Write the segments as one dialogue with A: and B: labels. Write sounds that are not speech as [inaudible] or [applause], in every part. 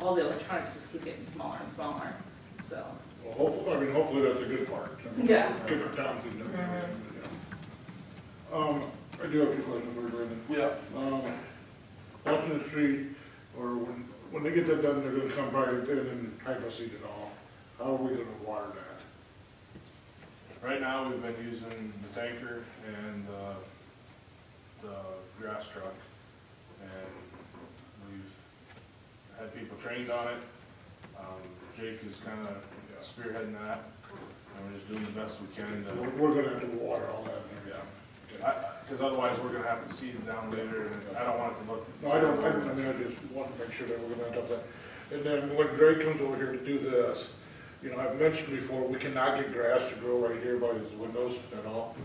A: all the electronics just keep getting smaller and smaller, so.
B: Well, hopefully, I mean, hopefully that's a good part. I mean,
A: Yeah.
B: Different towns and different, you know. Um, I do have a question for you, Brandon.
C: Yeah.
B: Um, Washington Street, or when, when they get that done, they're gonna come probably in and type us it all. How are we gonna water that?
C: Right now, we've been using the tanker and uh, the grass truck. And we've had people trained on it. Um, Jake is kind of spearheading that. And we're just doing the best we can
B: We're,
C: to,
B: we're gonna have to water all that and everything.
C: yeah. Because otherwise, we're going to have to seed it down later, and I don't want it to look.
B: No, I don't, I I mean, I just want to make sure that we're gonna end up that. And then when Greg comes over here to do this, you know, I've mentioned before, we cannot get grass to grow right here by these windows at all.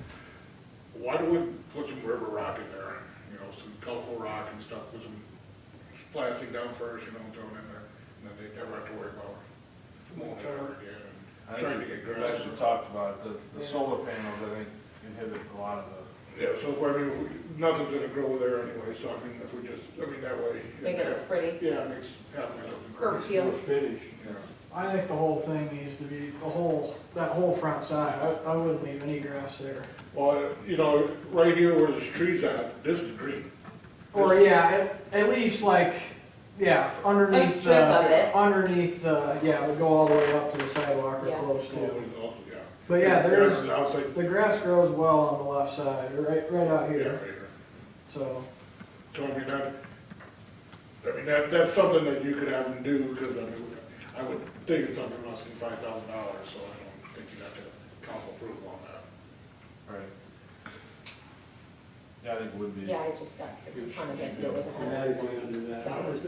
B: Why don't we put some river rock in there, you know, some colorful rock and stuff, put some plastic down first, you know, throw it in there, and then they never have to worry about mowing it over again
C: I
B: and trying to
C: think
B: get
C: we
B: grass.
C: actually talked about it. The- The solar panels, I think, inhibit a lot of the,
B: Yeah, so if, I mean, if we- nothing's gonna grow there anyway, so I mean, if we just, I mean, that way.
D: Make it look pretty.
B: Yeah, it makes halfway look.
D: Curb appeal.
E: I think the whole thing needs to be, the whole, that whole front side, I, I wouldn't leave any grass there.
B: Well, you know, right here where there's trees at, this is green.
E: Or, yeah, at, at least like, yeah, underneath the.
D: A strip of it.
E: Underneath the, yeah, it would go all the way up to the sidewalk or
D: Yeah.
E: close
B: So,
E: to.
B: it's also- yeah.
E: But yeah,
B: Grass
E: there's,
B: is outside,
E: the grass grows well on the left side, right, right out
B: yeah, right
E: here,
B: here.
E: so.
B: So I mean, that, I mean, that, that's something that you could have them do, because I mean, I would think it's something less than five thousand dollars, so I don't think you'd have to council approval on that.
C: right? Yeah, I think it would be.
D: Yeah, I just got six ton of it, and it was a hundred
F: Automatically
D: and
F: under
D: ninety
F: that.
D: dollars,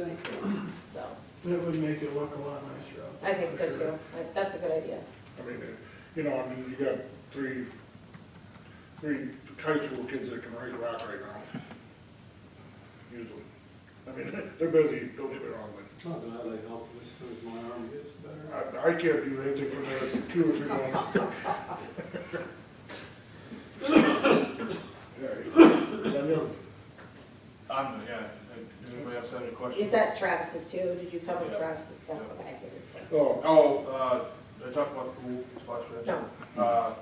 D: so,
E: It would make it look a lot nicer out there.
D: I think so too, I- that's a good idea.
B: I mean, it- you know, I mean, you got three, three high school kids that can rake rock right now. Usually. I mean, [laughs] they're busy, don't get me wrong, but
F: I'm glad I helped as soon as my arm gets better.
B: I, I can't do anything for another two or three
E: [laughs]
B: months. Yeah, I know.
C: Um, yeah, does anybody else have any questions?
D: Is that Travis's too? Did you cover
C: Yeah.
D: Travis's stuff?
C: Yeah.
D: Okay, I figured so.
B: Oh,
C: Oh, uh, did I talk about the pool splash pad?
D: No,
C: Uh,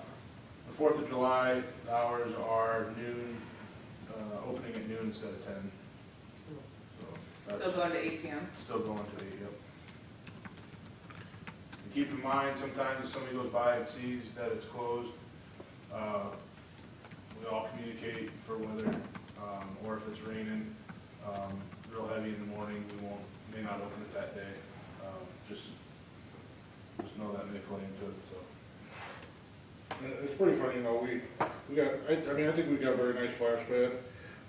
C: the Fourth of July the hours are noon, uh, opening at noon instead of ten. So
A: Still
C: that's
A: going to eight P M.
C: still going to eight, yep. And keep in mind, sometimes if somebody goes by and sees that it's closed, uh, we all communicate for weather, um, or if it's raining, um, real heavy in the morning, we won't, may not open it that day. Um, Just, just know that may play into it, so.
B: it's pretty funny, you know, we, we got, I, I mean, I think we got a very nice splash pad,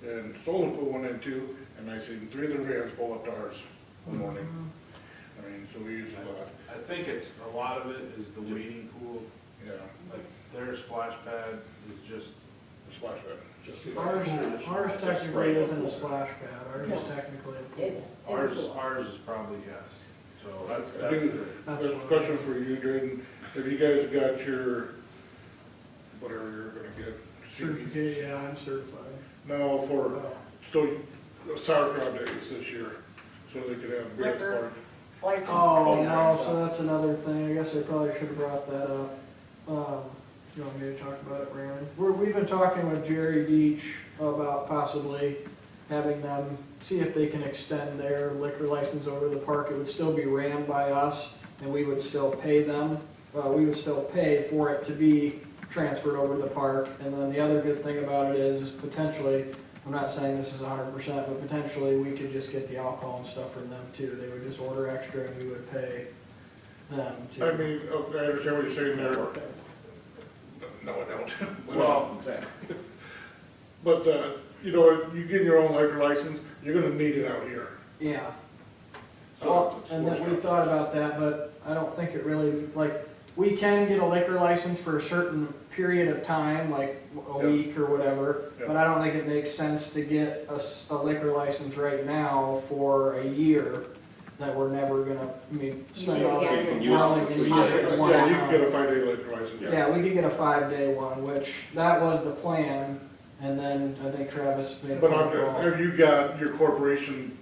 B: and Solon put one in too, and I seen three of their vans pull up to ours one morning.
E: Mm-hmm.
B: I mean, so we use a lot,
C: I think it's, a lot of it is the wading pool,
B: yeah,
C: like their splash pad is just,
B: the splash pad.
E: Ours, ours technically isn't a splash pad, ours is
D: No.
E: technically a pool.
D: it's,
C: ours,
D: it's cool.
C: ours is probably yes. So that's,
B: I
C: that's,
B: do-
C: the-
E: That's
B: There's a
E: what-
B: question for you, Drayden. Have you guys got your, whatever you're gonna get?
E: Certificate, yeah, I'm certified.
B: No, for,
E: Well,
B: so sauerkraut days this year, so they could have beer at the
D: Liquor.
B: park.
D: License.
E: Oh, no, so that's another thing, I guess I probably should have brought that up. Um, you want me to talk about it, Raymond? We're, we've been talking with Jerry Deach about possibly having them, see if they can extend their liquor license over to the park. It would still be ran by us, and we would still pay them, uh, we would still pay for it to be transferred over to the park. And then the other good thing about it is, is potentially, I'm not saying this is hundred percent, but potentially we could just get the alcohol and stuff from them too. They would just order extra and we would pay them to.
B: I mean, okay, I understand what you're saying there. No, I don't. [laughs]
C: Well-
B: exactly. But, uh, you know, you get your own liquor license, you're gonna need it out here.
E: Yeah,
B: So
E: well, and that we thought about that, but I don't think it really, like, we can get a liquor license for a certain period of time, like a
B: Yeah.
E: week or whatever,
B: Yeah.
E: but I don't think it makes sense to get a, s- a liquor license right now for a year that we're never gonna, I mean, spend all
D: Yeah, you
E: that
D: can
F: use it
E: money
F: for
E: and
F: three
E: use it
D: years.
E: one
B: Yeah, you can
E: time.
B: get a five-day liquor license.
E: Yeah, we could get a five-day one, which, that was the plan, and then I think Travis made a
B: But
E: phone
B: I'm-
E: call.
B: have you got your corporation